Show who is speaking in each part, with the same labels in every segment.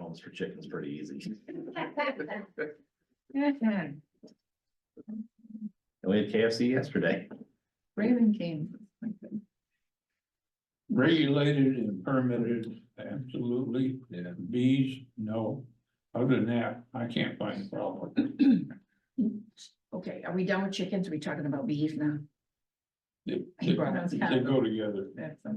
Speaker 1: bones for chickens pretty easy.
Speaker 2: Mhm.
Speaker 1: And we had KFC yesterday.
Speaker 2: Raven King.
Speaker 3: Regulated and permitted, absolutely.
Speaker 1: Yeah.
Speaker 3: Bees, no. Other than that, I can't find a problem.
Speaker 2: Okay, are we done with chickens? Are we talking about bees now?
Speaker 3: They,
Speaker 2: He
Speaker 3: they
Speaker 2: brought up
Speaker 3: they go together.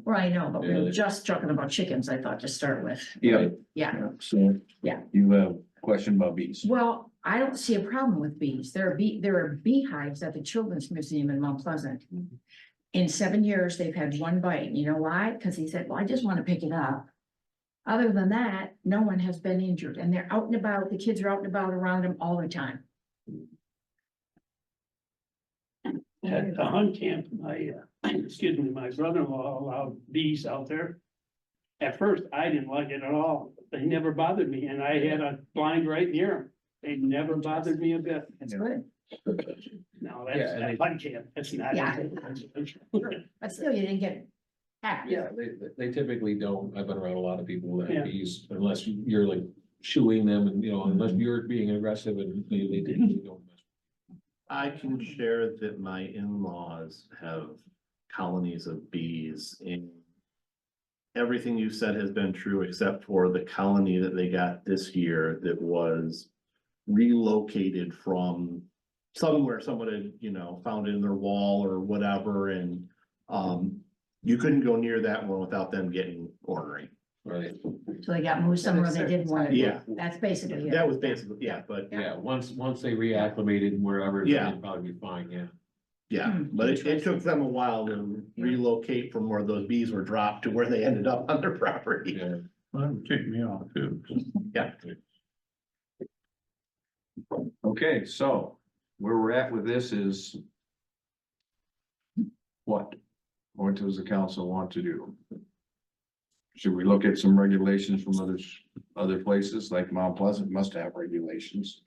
Speaker 2: Well, I know, but we
Speaker 1: Yeah.
Speaker 2: were just talking about chickens, I thought, to start with.
Speaker 4: Yeah,
Speaker 2: Yeah,
Speaker 4: so.
Speaker 2: Yeah.
Speaker 4: You have a question about bees.
Speaker 2: well, I don't see a problem with bees. There are bee, there are beehives at the Children's Museum in Mount Pleasant. In seven years, they've had one bite. You know why? Because he said, well, I just want to pick it up. Other than that, no one has been injured and they're out and about. The kids are out and about around them all the time.
Speaker 5: At the hunt camp, my, uh, excuse me, my brother-in-law allowed bees out there. At first, I didn't like it at all. They never bothered me and I had a blind right near them. They never bothered me a bit.
Speaker 2: That's good.
Speaker 5: No,
Speaker 1: Yeah,
Speaker 5: that's
Speaker 1: and
Speaker 5: at hunt camp. That's not.
Speaker 2: Yeah. But still, you didn't get. hacked.
Speaker 6: Yeah, they, they typically don't, I've been around a lot of people that
Speaker 5: Yeah.
Speaker 6: have these, unless you're like shooing them and, you know, unless
Speaker 4: Mm-hmm.
Speaker 6: you're being aggressive and they, they typically don't.
Speaker 1: I can share that my in-laws have colonies of bees in. Everything you said has been true except for the colony that they got this year that was relocated from somewhere someone had, you know, found it in their wall or whatever and um you couldn't go near that one without them getting ornery.
Speaker 6: Right,
Speaker 2: So they got moved somewhere they didn't want to.
Speaker 1: Yeah.
Speaker 2: That's basically it.
Speaker 1: That was basically, yeah, but
Speaker 6: yeah, once, once they reacclimated wherever,
Speaker 1: Yeah.
Speaker 6: then they'd probably be fine, yeah.
Speaker 1: Yeah,
Speaker 2: Hmm,
Speaker 1: but it, it took them a while to relocate from where those bees were dropped to where they ended up on their property.
Speaker 6: Yeah,
Speaker 3: That would tick me off too.
Speaker 4: Okay, so where we're at with this is. What? What does the council want to do? Should we look at some regulations from others, other places like Mount Pleasant must have regulations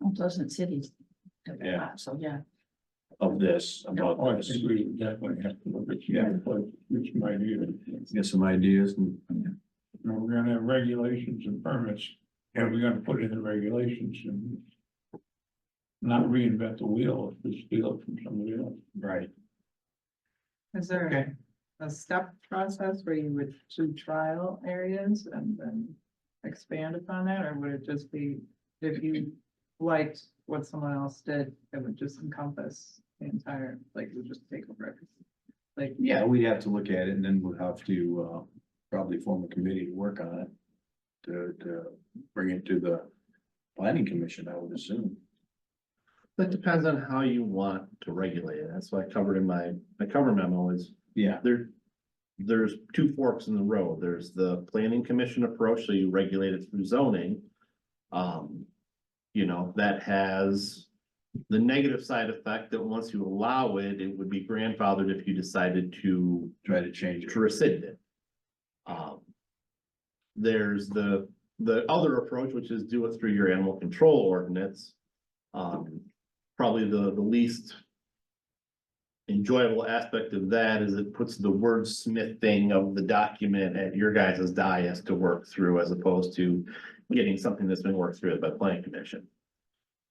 Speaker 2: Mount Pleasant cities.
Speaker 4: Yeah.
Speaker 2: So, yeah.
Speaker 4: of this,
Speaker 3: Oh, I
Speaker 4: about this?
Speaker 3: think we definitely have to look at
Speaker 4: Yeah.
Speaker 3: that, but it's my view.
Speaker 4: Get some ideas and
Speaker 3: You know, we're gonna have regulations and permits, and we're gonna put in the regulations and. Not reinvent the wheel, just steal it from somebody else.
Speaker 4: Right.
Speaker 7: Is there
Speaker 4: Okay.
Speaker 7: a step process where you would do trial areas and then expand upon that, or would it just be if you liked what someone else did, it would just encompass the entire, like, you just take over everything? Like,
Speaker 4: Yeah, we have to look at it and then we'll have to, uh, probably form a committee to work on it. To, to bring it to the planning commission, I would assume.
Speaker 1: That depends on how you want to regulate it. That's what I covered in my, my cover memo is
Speaker 4: Yeah.
Speaker 1: there. There's two forks in the road. There's the planning commission approach, so you regulate it through zoning. Um, you know, that has the negative side effect that once you allow it, it would be grandfathered if you decided to
Speaker 4: Try to change it.
Speaker 1: to rescind it. Um. There's the, the other approach, which is do it through your animal control ordinance. Um, probably the, the least. Enjoyable aspect of that is it puts the wordsmithing of the document at your guys' dais to work through as opposed to. Getting something that's been worked through by planning commission.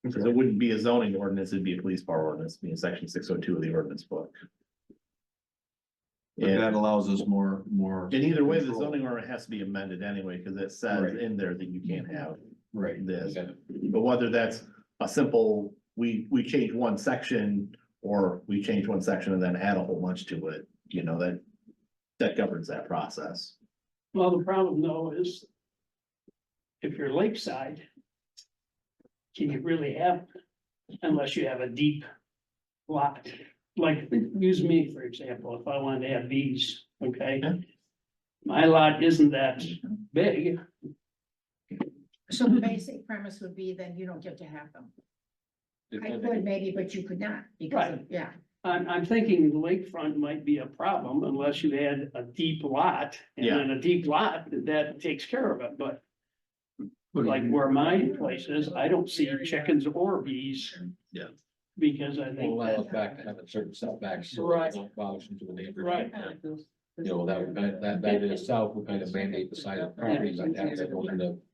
Speaker 1: Because it wouldn't be a zoning ordinance, it'd be a police power ordinance, being section six oh two of the ordinance book.
Speaker 4: But
Speaker 1: And-
Speaker 4: that allows us more, more,
Speaker 1: and either way, the
Speaker 4: Control.
Speaker 1: zoning order has to be amended anyway, because it says
Speaker 4: Right.
Speaker 1: in there that you can't have
Speaker 4: right,
Speaker 1: this.
Speaker 6: Yeah.
Speaker 1: But whether that's a simple, we, we change one section, or we change one section and then add a whole bunch to it, you know, that, that governs that process.
Speaker 5: Well, the problem though is if you're lakeside, can you really have, unless you have a deep lot? Like, use me for example, if I wanted to have bees, okay?
Speaker 1: Yeah.
Speaker 5: My lot isn't that big,
Speaker 2: So the basic premise would be then you don't get to have them. I
Speaker 6: Depending-
Speaker 2: would maybe, but you could not because of, yeah.
Speaker 5: I'm, I'm thinking lakefront might be a problem unless you had a deep lot. And
Speaker 1: Yeah.
Speaker 5: then a deep lot, that takes care of it, but
Speaker 3: But
Speaker 5: like where my place is, I don't see chickens or bees.
Speaker 1: Yeah.
Speaker 5: Because I
Speaker 6: Will
Speaker 5: think
Speaker 6: allow
Speaker 5: that,
Speaker 6: us back to have a certain setback. so it
Speaker 5: Right.
Speaker 6: won't Bothers into the neighborhood.
Speaker 5: Right.
Speaker 6: You know, that, would- that, that in itself would kind of mandate the size of properties like that, that will end up